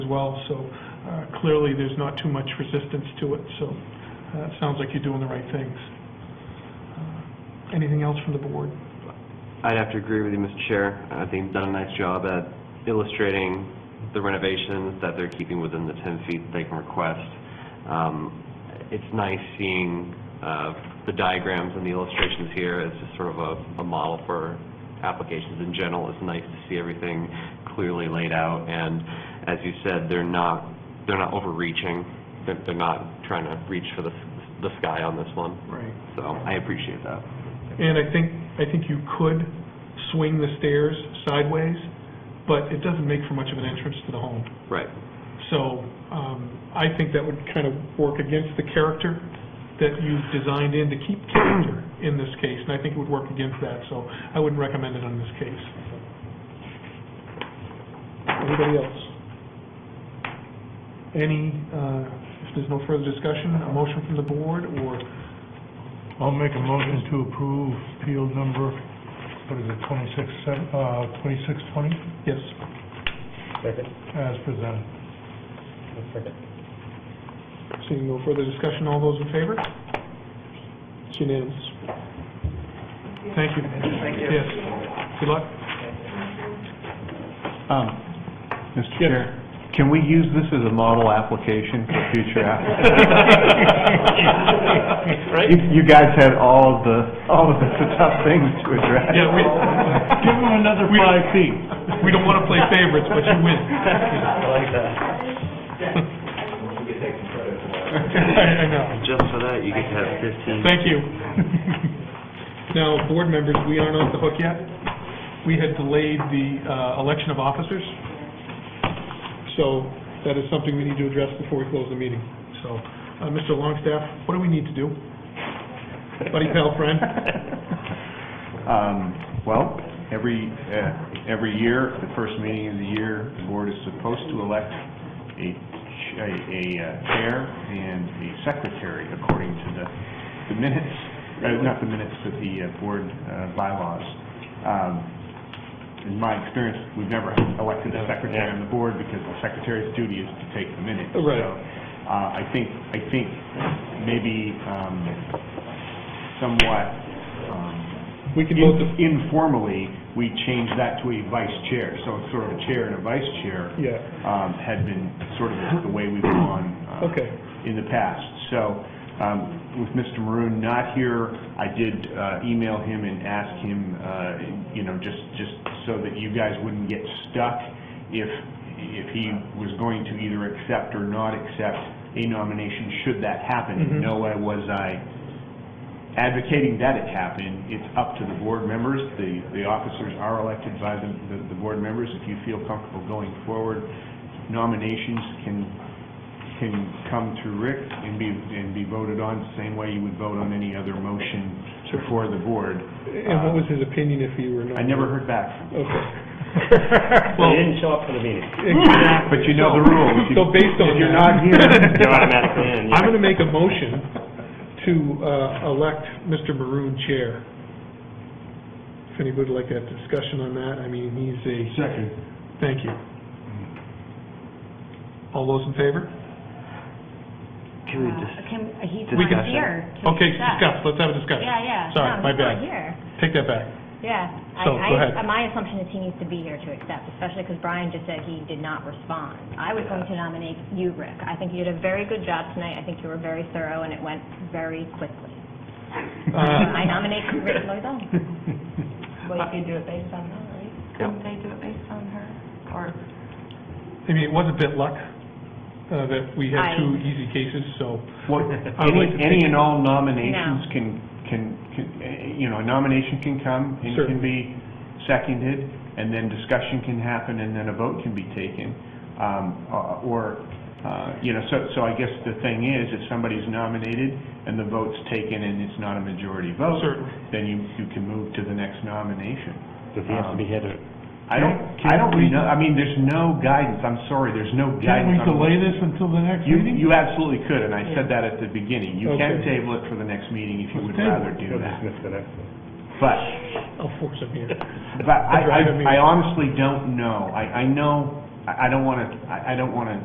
well, so uh, clearly, there's not too much resistance to it, so uh, it sounds like you're doing the right things. Uh, Anything else from the board? I'd have to agree with you, Mr. Chair. I think you've done a nice job at illustrating the renovations that they're keeping within the 10 feet they can request. Um, It's nice seeing uh, the diagrams and the illustrations here as just sort of a, a model for applications in general. It's nice to see everything clearly laid out, and as you said, they're not, they're not overreaching. They're, they're not trying to reach for the, the sky on this one, Right. so I appreciate that. And I think, I think you could swing the stairs sideways, but it doesn't make for much of an entrance to the home. Right. So um, I think that would kind of work against the character that you've designed in to keep character in this case, and I think it would work against that, so I wouldn't recommend it on this case. Anybody else? Any, uh, if there's no further discussion, a motion from the board, or I'll make a motion to approve appeal number, what is it, 26, uh, 2620, yes? Second, as presented. second. Seeing no further discussion, all those in favor? It's unanimous. Thank you. Thank you. Yes. Good luck. Um, Mr. Chair, can we use this as a model application for future applications? Right? You guys had all the, all of the tough things to address. Yeah, we, Give them another We- five feet. we don't want to play favorites, but you win. I like that. I I know. Just for that, you could have 15 Thank you. Now, board members, we aren't off the hook yet. We had delayed the uh, election of officers, so that is something we need to address before we close the meeting. So, uh, Mr. Longstaff, what do we need to do? Buddy, pal, friend? Um, Well, every, uh, every year, the first meeting of the year, the board is supposed to elect a ch- a a, uh, chair and a secretary according to the the minutes, uh, not the minutes, but the uh, board uh, bylaws. Um, In my experience, we've never elected a secretary on the board because the secretary's duty is to take the minutes. Right. So, uh, I think, I think maybe um, somewhat um, We can vote the, in- Informally, we changed that to a vice chair, so it's sort of a chair and a vice chair yeah. um, had been sort of the way we've gone uh, Okay. in the past. So um, with Mr. Maroon not here, I did uh, email him and ask him, uh, you know, just, just so that you guys wouldn't get stuck if, if he was going to either accept or not accept a nomination, should that Mhm. happen. No way was I advocating that it happen, it's up to the board members. The, the officers are elected by the, the- the board members. If you feel comfortable going forward, nominations can, can come through Rick and be, and be voted on the same way you would vote on any other motion Sure. before the board. And what was his opinion if you were not? I never heard back from him. Okay. So you didn't show up for the meeting. Exactly. But you know the rules. If you- So based on If you're that- not here. You're automatically in. I'm going to make a motion to uh, elect Mr. Maroon chair. If anybody would like to have discussion on that, I mean, he's a... Second. Thank you. All those in favor? Can we just, Uh, Can, he's We got not you. here to Okay, discuss. discuss, let's have a discussion. Yeah, yeah. Sorry, No, my he's bad. not here. Take that back. Yeah. I- So, I- go ahead. uh, My assumption is he needs to be here to accept, especially because Brian just said he did not respond. I was going to nominate you, Rick. I think you did a very good job tonight. I think you were very thorough, and it went very quickly. I Uh, nominate Rick Loizon. Well, you could do it based on her, right? Couldn't they do it based on her? Or, I mean, it was a bit luck uh, that we had I- two easy cases, so... Well, I would any, like to any think- and all nominations can, can, can, eh, you know, a nomination can come and Sure. can be seconded, and then discussion can happen, and then a vote can be taken. Um, uh, or, uh, you know, so, so I guess the thing is, if somebody's nominated and the vote's taken and it's not a majority vote, Certainly. then you, you can move to the next nomination. Does he have to be here to? I don't, I don't know, I mean, there's no guidance, I'm sorry, there's no Can we guidance on delay this until the next you, meeting? you absolutely could, and I said that at the beginning. You can Mm-hmm. Okay. table it for the next meeting if you would Let's table rather do that. the next one. But, I'll force him here. but I, Right, I mean- I I honestly don't know. I, I know, I I don't want to, I I don't want to